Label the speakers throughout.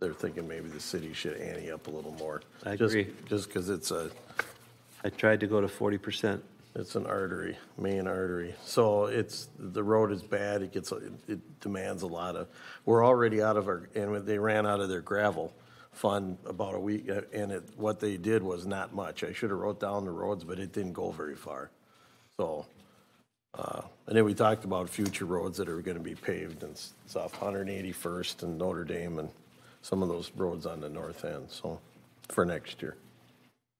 Speaker 1: they're thinking maybe the city should ante up a little more.
Speaker 2: I
Speaker 1: Just-
Speaker 2: agree.
Speaker 1: Just because it's a,
Speaker 2: I tried to go to 40%.
Speaker 1: it's an artery, main artery. So it's, the road is bad, it gets, it demands a lot of, we're already out of our, and they ran out of their gravel fund about a week, uh, and it, what they did was not much. I should have wrote down the roads, but it didn't go very far. So, uh, and then we talked about future roads that are gonna be paved, and it's off 181st and Notre Dame, and some of those roads on the north end, so, for next year.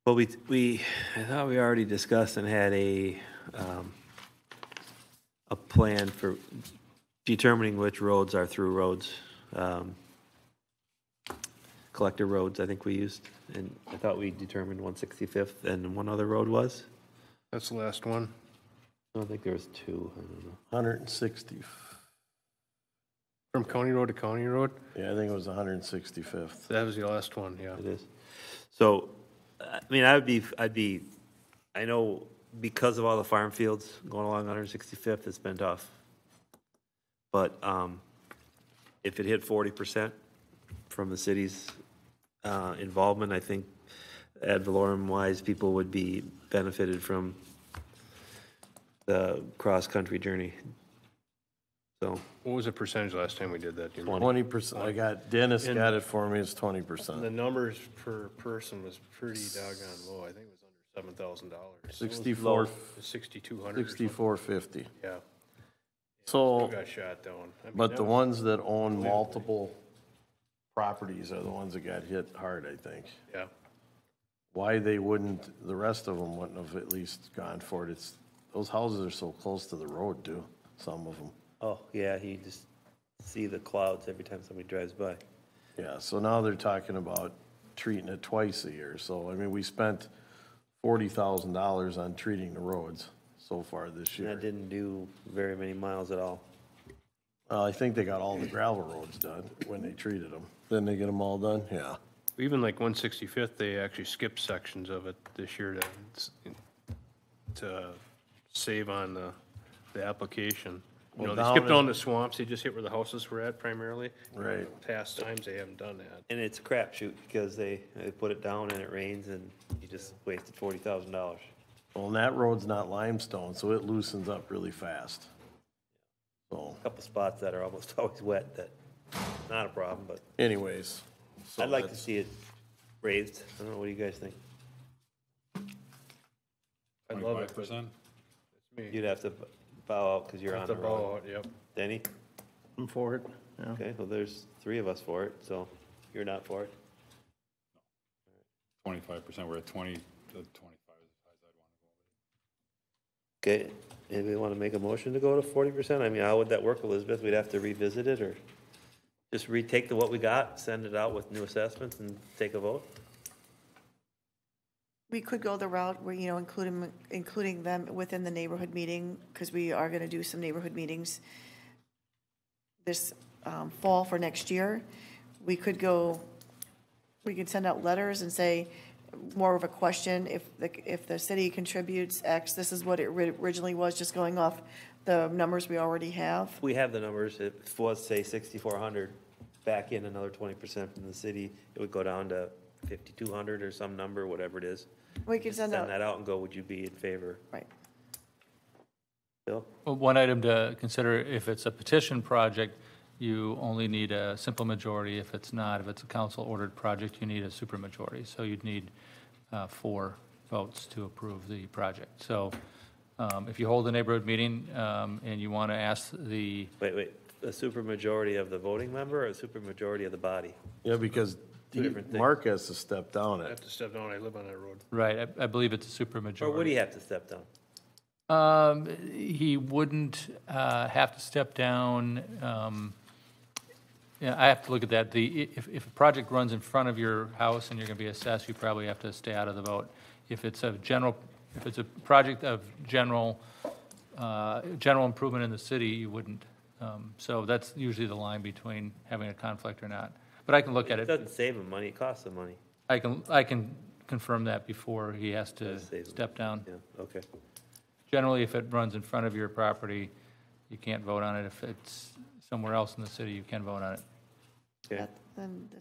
Speaker 2: But we, we, I thought we already discussed and had a, um, a plan for determining which roads are through roads, um, collector roads, I think we used. And I thought we determined 165th and one other road was.
Speaker 3: That's the last one.
Speaker 2: I don't think there was two. I don't know.
Speaker 1: 160,
Speaker 3: From county road to county road,
Speaker 1: yeah, I think it was 165th.
Speaker 3: that was the last one, yeah.
Speaker 2: It is. So, I mean, I would be, I'd be, I know because of all the farm fields going along 165th, it's been tough. But um, if it hit 40% from the city's uh, involvement, I think ad valorem wise, people would be benefited from the cross-country journey. So,
Speaker 3: What was the percentage last time we did that? do you remember?
Speaker 1: Twenty percent, I got, Dennis got it for me, it's twenty percent.
Speaker 3: The numbers per person was pretty doggone low. I think it was under seven thousand dollars.
Speaker 1: Sixty-four,
Speaker 3: Sixty-two hundred or something,
Speaker 1: sixty-four fifty.
Speaker 3: yeah.
Speaker 1: So,
Speaker 3: Still got shot down. I mean,
Speaker 1: but
Speaker 3: that
Speaker 1: the
Speaker 3: was-
Speaker 1: ones that own multiple properties are the ones that got hit hard, I think.
Speaker 3: Yeah,
Speaker 1: Why they wouldn't, the rest of them wouldn't have at least gone for it, it's, those houses are so close to the road, too, some of them.
Speaker 2: oh, yeah, you just see the clouds every time somebody drives by.
Speaker 1: Yeah, so now they're talking about treating it twice a year, so, I mean, we spent forty thousand dollars on treating the roads so far this year.
Speaker 2: And that didn't do very many miles at all.
Speaker 1: Uh, I think they got all the gravel roads done when they treated them. Then they get them all done? Yeah.
Speaker 3: even like one sixty-fifth, they actually skipped sections of it this year to, to save on the, the application. You know,
Speaker 1: Well,
Speaker 3: they
Speaker 1: down
Speaker 3: skipped
Speaker 1: in-
Speaker 3: on the swamps, they just hit where the houses were at primarily.
Speaker 1: Right.
Speaker 3: Past times, they haven't done that.
Speaker 2: And it's a crapshoot because they, they put it down and it rains and you just wasted forty thousand dollars.
Speaker 1: Well, and that road's not limestone, so it loosens up really fast. So
Speaker 2: A Couple spots that are almost always wet that, not a problem, but
Speaker 1: anyways. so
Speaker 2: I'd like to
Speaker 1: that's-
Speaker 2: see it raised. I don't know, what do you guys think?
Speaker 3: I'd love it, but it's me.
Speaker 2: You'd have to bow out because you're on
Speaker 3: It's a
Speaker 2: the road.
Speaker 3: ball, yep.
Speaker 2: Denny?
Speaker 4: I'm for it, yeah.
Speaker 2: Okay, well, there's three of us for it, so you're not for it.
Speaker 5: Twenty-five percent, we're at twenty, the twenty-five is as high as I'd want to go.
Speaker 2: Okay, anybody want to make a motion to go to forty percent? I mean, how would that work, Elizabeth? We'd have to revisit it or just retake the what we got, send it out with new assessments and take a vote?
Speaker 6: We could go the route where, you know, include them, including them within the neighborhood meeting, because we are gonna do some neighborhood meetings this um, fall for next year. We could go, we could send out letters and say, more of a question, if, the if the city contributes X, this is what it ri- originally was, just going off the numbers we already have.
Speaker 2: We have the numbers. If it was, say, sixty-four hundred, back in another twenty percent from the city, it would go down to fifty-two hundred or some number, whatever it is.
Speaker 6: We could
Speaker 2: Just
Speaker 6: send
Speaker 2: Send
Speaker 6: out,
Speaker 2: that out and go, would you be in favor?
Speaker 6: right.
Speaker 2: Bill?
Speaker 7: Well, One item to consider, if it's a petition project, you only need a simple majority. If it's not, if it's a council-ordered project, you need a supermajority. So you'd need uh, four votes to approve the project. So um, if you hold a neighborhood meeting um, and you want to ask the,
Speaker 2: Wait, wait, a supermajority of the voting member or a supermajority of the body?
Speaker 1: Yeah, because
Speaker 2: Two different things.
Speaker 1: Mark has to step down
Speaker 3: I
Speaker 1: it.
Speaker 3: have to step down, I live on that road.
Speaker 7: right, I I believe it's a
Speaker 2: Or would he
Speaker 7: supermajority.
Speaker 2: have to step down?
Speaker 7: Um, He wouldn't uh, have to step down. um, Yeah, I have to look at that. The, if, if a project runs in front of your house and you're gonna be assessed, you probably have to stay out of the vote. If it's a general, if it's a project of general, uh, general improvement in the city, you wouldn't. Um, So that's usually the line between having a conflict or not. But I can look at
Speaker 2: It
Speaker 7: it.
Speaker 2: doesn't save him money, it costs him money.
Speaker 7: I can, I can confirm that before he has to
Speaker 2: Does save him.
Speaker 7: step down.
Speaker 2: Yeah, okay.
Speaker 7: Generally, if it runs in front of your property, you can't vote on it. If it's somewhere else in the city, you can vote on it.
Speaker 2: Okay.
Speaker 6: Then the